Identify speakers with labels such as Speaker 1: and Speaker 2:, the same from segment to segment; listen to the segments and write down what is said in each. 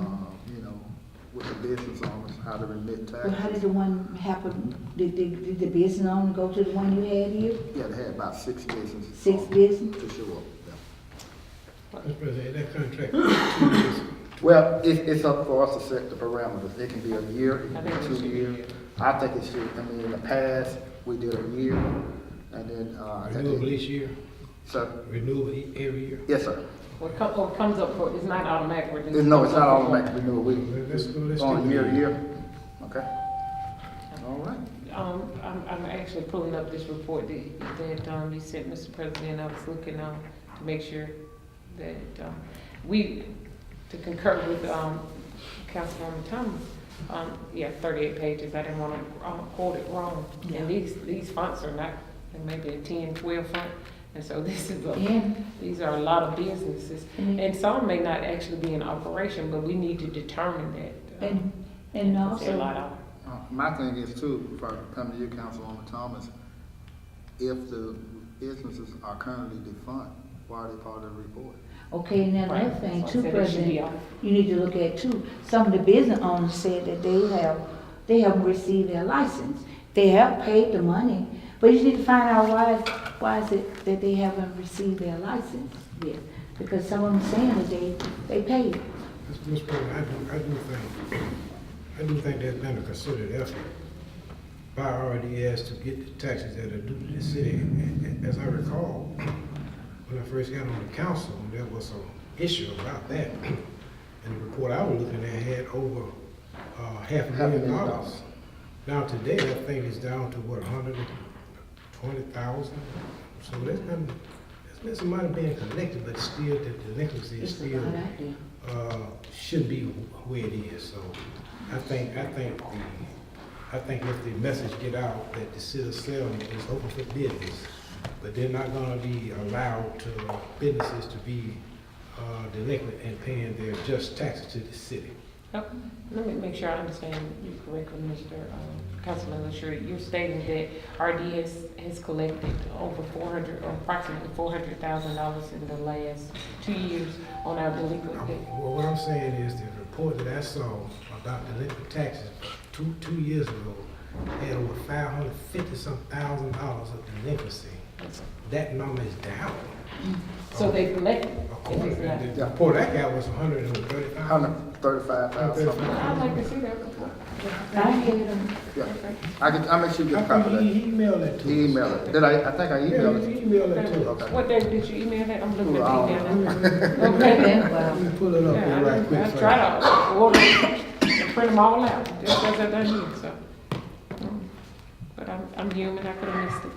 Speaker 1: um, business owners how to remit
Speaker 2: Well, how did
Speaker 1: taxes.
Speaker 2: the one happen, did, did, did the business owner go to the one you had here?
Speaker 1: Yeah, they had about six businesses.
Speaker 2: Six
Speaker 1: on
Speaker 2: business?
Speaker 1: To show up, yeah.
Speaker 3: Mr. President, that contract, two years,
Speaker 1: Well, it, it's up for us to set the parameters. It can be a year, it can
Speaker 4: I think it
Speaker 1: be
Speaker 4: should
Speaker 1: two
Speaker 4: be a
Speaker 1: years.
Speaker 4: year.
Speaker 1: I think it should, I mean, in the past, we did a year, and then, uh. at the-
Speaker 3: renewable each year,
Speaker 1: Sir,
Speaker 3: renewable e- every year.
Speaker 1: yes, sir.
Speaker 4: What comes, what comes up for, it's not automatic, we're just.
Speaker 1: It's- No, it's not automatic renewal, we,
Speaker 3: Let's go, let's
Speaker 1: it's on a
Speaker 3: do
Speaker 1: year, to
Speaker 3: that.
Speaker 1: year. Okay. All right.
Speaker 4: Um, I'm, I'm actually pulling up this report that, that, um, you sent, Mr. President, I was looking, um, to make sure that, um, we, to concur with, um, Councilwoman Thomas, um, yeah, thirty-eight pages, I didn't wanna, um, quote it wrong.
Speaker 2: Yeah.
Speaker 4: And these, these fonts are not, they may be a ten, twelve font, and so this is a,
Speaker 2: And,
Speaker 4: these are a lot of businesses.
Speaker 2: and,
Speaker 4: And some may not actually be in operation, but we need to determine that. um,
Speaker 2: and- and
Speaker 4: There's a
Speaker 2: also,
Speaker 4: lot of,
Speaker 1: Uh, My thing is too, if I come to you, Councilwoman Thomas, if the businesses are currently defunct, why are they part of the report?
Speaker 2: okay, and then another
Speaker 4: Right.
Speaker 2: thing
Speaker 4: So I
Speaker 2: too,
Speaker 4: said it should be
Speaker 2: President, you need to look at too, some of the business owners said that they have, they haven't received their license. They have paid the money, but you need to find out why, why is it that they haven't received their license yet? Because some of them saying that they, they paid.
Speaker 3: Mr. Mr. President, I do, I do think, I do think there's been a considered effort by RDS to get the taxes that are due to the city. And- and As I recall, when I first got on the council, there was some issue about that. And the report I was looking at had over, uh, half a million dollars. Now today, that thing is down to what, hundred and twenty thousand? So there's been, there's been some money being collected, but still the delinquency is
Speaker 2: It's a
Speaker 3: still
Speaker 2: lot out there.
Speaker 3: uh, should be where it is, so I think, I think, the I think if the message get out that the city of Selma is open for business, but they're not gonna be allowed to, businesses to be uh, delinquent and paying their just taxes to the city.
Speaker 4: Oh, Let me make sure I understand you correctly, Mr. um, Councilman LaShure. You're stating that RDS has collected over four hundred, or approximately four hundred thousand dollars in the last two years on our delinquent
Speaker 3: I'm-
Speaker 4: debt.
Speaker 3: Well, what I'm saying is the report that I saw about delinquent taxes two, two years ago had over five hundred fifty some thousand dollars of delinquency. That number is down.
Speaker 4: So they collected.
Speaker 3: According to
Speaker 4: If it's
Speaker 3: the report I got was hundred and thirty-five.
Speaker 1: Hundred thirty-five thousand something.
Speaker 4: not- I'd like to see that report.
Speaker 2: I had them,
Speaker 1: Yeah. I can, I'll make sure you get a copy of that.
Speaker 3: He emailed it to us.
Speaker 1: Email it. Did I, I think I
Speaker 3: Yeah, he
Speaker 1: emailed it.
Speaker 3: emailed it to us.
Speaker 1: Okay.
Speaker 4: What day did you email that? I'm looking at
Speaker 1: Wow.
Speaker 4: the email. now.
Speaker 2: okay,
Speaker 4: Okay.
Speaker 2: then, well.
Speaker 3: Let me pull it up
Speaker 4: Yeah,
Speaker 3: here right
Speaker 4: I-
Speaker 3: quick.
Speaker 4: I
Speaker 3: for
Speaker 4: tried
Speaker 3: you.
Speaker 4: to order, and print them all out, just as I done you, so. But I'm, I'm human, I could have missed it.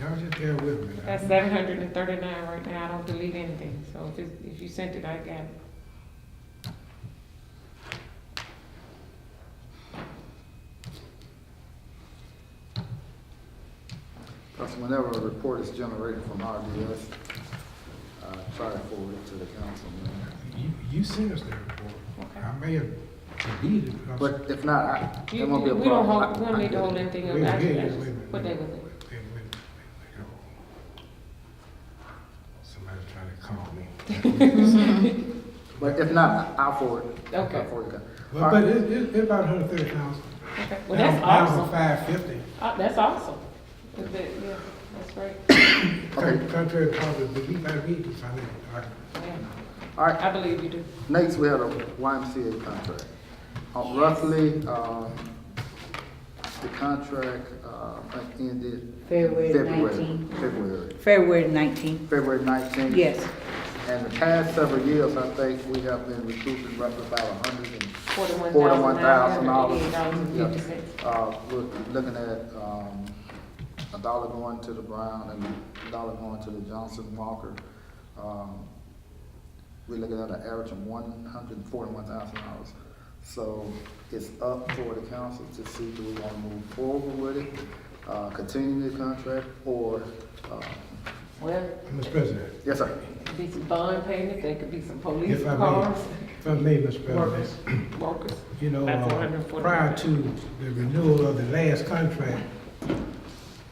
Speaker 3: Y'all just bear with me now.
Speaker 4: That's seven hundred and thirty-nine right now, I don't delete anything, so if, it- if you sent it, I got it.
Speaker 1: Because whenever a report is generated from RDS, I try to forward it to the council. man.
Speaker 3: You, you sent us that report.
Speaker 4: Okay.
Speaker 3: I may have deleted it. I'm sorry.
Speaker 1: But if not, I,
Speaker 4: You-
Speaker 1: it won't be a
Speaker 4: We don't
Speaker 1: problem.
Speaker 4: hold, we
Speaker 1: I- I
Speaker 4: don't need to
Speaker 1: get it.
Speaker 4: hold anything up,
Speaker 3: Wait,
Speaker 4: I
Speaker 3: wait,
Speaker 4: just, I
Speaker 3: wait,
Speaker 4: just-
Speaker 3: wait, wait,
Speaker 4: what day
Speaker 3: wait,
Speaker 4: was it?
Speaker 3: wait, wait, wait, wait, wait, wait. Somebody's trying to call me.
Speaker 1: But if not, I'll forward it.
Speaker 4: Okay.
Speaker 1: I'll forward it. All
Speaker 3: But,
Speaker 1: right.
Speaker 3: but it, it, it's about hundred thirty thousand.
Speaker 4: Okay, well, that's
Speaker 3: Thousand
Speaker 4: awesome,
Speaker 3: five fifty.
Speaker 4: Uh, that's awesome. Is that- yeah, that's right,
Speaker 1: Okay.
Speaker 3: Contrary to public belief, I read this, I mean, I-
Speaker 4: yeah,
Speaker 1: All right,
Speaker 4: I believe you do.
Speaker 1: Next, we had a YMCA contract. Uh, Roughly, um, the contract, uh, I think ended.
Speaker 2: February
Speaker 1: February.
Speaker 2: 19.
Speaker 1: February,
Speaker 2: February nineteenth,
Speaker 1: February nineteenth.
Speaker 2: yes.
Speaker 1: And the past several years, I think we have been recruiting roughly about a hundred and,
Speaker 4: Forty-one
Speaker 1: Forty-one
Speaker 4: thousand nine
Speaker 1: thousand
Speaker 4: hundred
Speaker 1: dollars.
Speaker 4: eighty dollars and fifty cents.
Speaker 1: uh, we're looking at, um, a dollar going to the Brown and a dollar going to the Johnson Walker. Um, we're looking at an average of one hundred and forty-one thousand dollars. So it's up for the council to see do we want to move forward with it, uh, continue the contract, or, uh,
Speaker 4: Well,
Speaker 3: Mr. President,
Speaker 1: yes, sir.
Speaker 4: it could be some bond payment, there could be some police
Speaker 3: If I may,
Speaker 4: cars,
Speaker 3: if I may, Mr.
Speaker 4: workers,
Speaker 3: President,
Speaker 4: workers.
Speaker 3: you know,
Speaker 4: That's
Speaker 3: uh,
Speaker 4: 140.
Speaker 3: prior to the renewal of the last contract,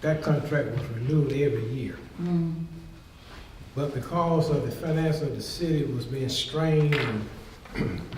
Speaker 3: that contract was renewed every year.
Speaker 4: Mm.
Speaker 3: But because of the finance of the city was being strained and